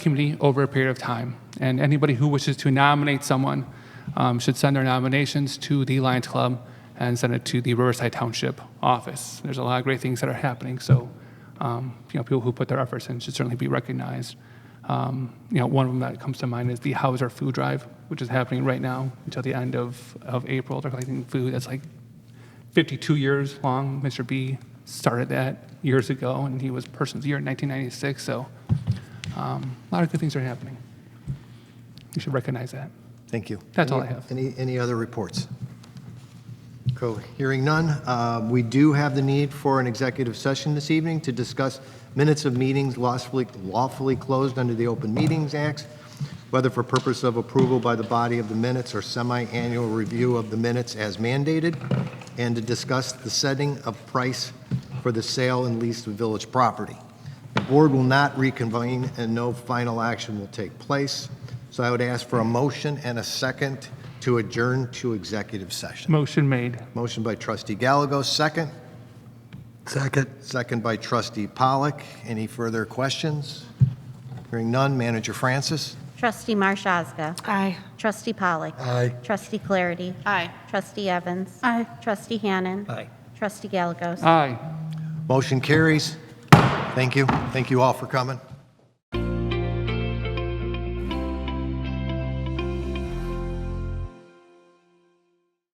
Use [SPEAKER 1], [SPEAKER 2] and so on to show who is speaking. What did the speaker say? [SPEAKER 1] committee over a period of time. And anybody who wishes to nominate someone um, should send their nominations to the Lions Club and send it to the Riverside Township office. There's a lot of great things that are happening, so um, you know people who put their efforts in should certainly be recognized. Um, you know, one of them that comes to mind is the Hauser Food Drive, which is happening right now until the end of, of April. They're collecting food that's like 52 years long. Mr. B started that years ago, and he was Person's Year in 1996. So um, a lot of good things are happening. You should recognize that.
[SPEAKER 2] Thank you.
[SPEAKER 1] That's all
[SPEAKER 2] Any-
[SPEAKER 1] I have.
[SPEAKER 2] Any, any other reports? Cool. Hearing none, uh, we do have the need for an executive session this evening to discuss minutes of meetings lawfully, lawfully closed under the Open Meetings Act, whether for purpose of approval by the body of the minutes or semi-annual review of the minutes as mandated, and to discuss the setting of price for the sale and lease of village property. The board will not reconvene and no final action will take place. So I would ask for a motion and a second to adjourn to executive session.
[SPEAKER 1] Motion made.
[SPEAKER 2] Motion by trustee Galago, second. Second. Second by trustee Pollock. Any further questions? Hearing none, manager Francis?
[SPEAKER 3] Trustee Marshazga.
[SPEAKER 4] Aye.
[SPEAKER 3] Trustee Pollock.
[SPEAKER 2] Aye.
[SPEAKER 3] Trustee Clarity.
[SPEAKER 4] Aye.
[SPEAKER 3] Trustee Evans.
[SPEAKER 4] Aye.
[SPEAKER 3] Trustee Hannan.
[SPEAKER 2] Aye.
[SPEAKER 3] Trustee Galagos.
[SPEAKER 1] Aye.
[SPEAKER 2] Motion carries. Thank you. Thank you all for coming.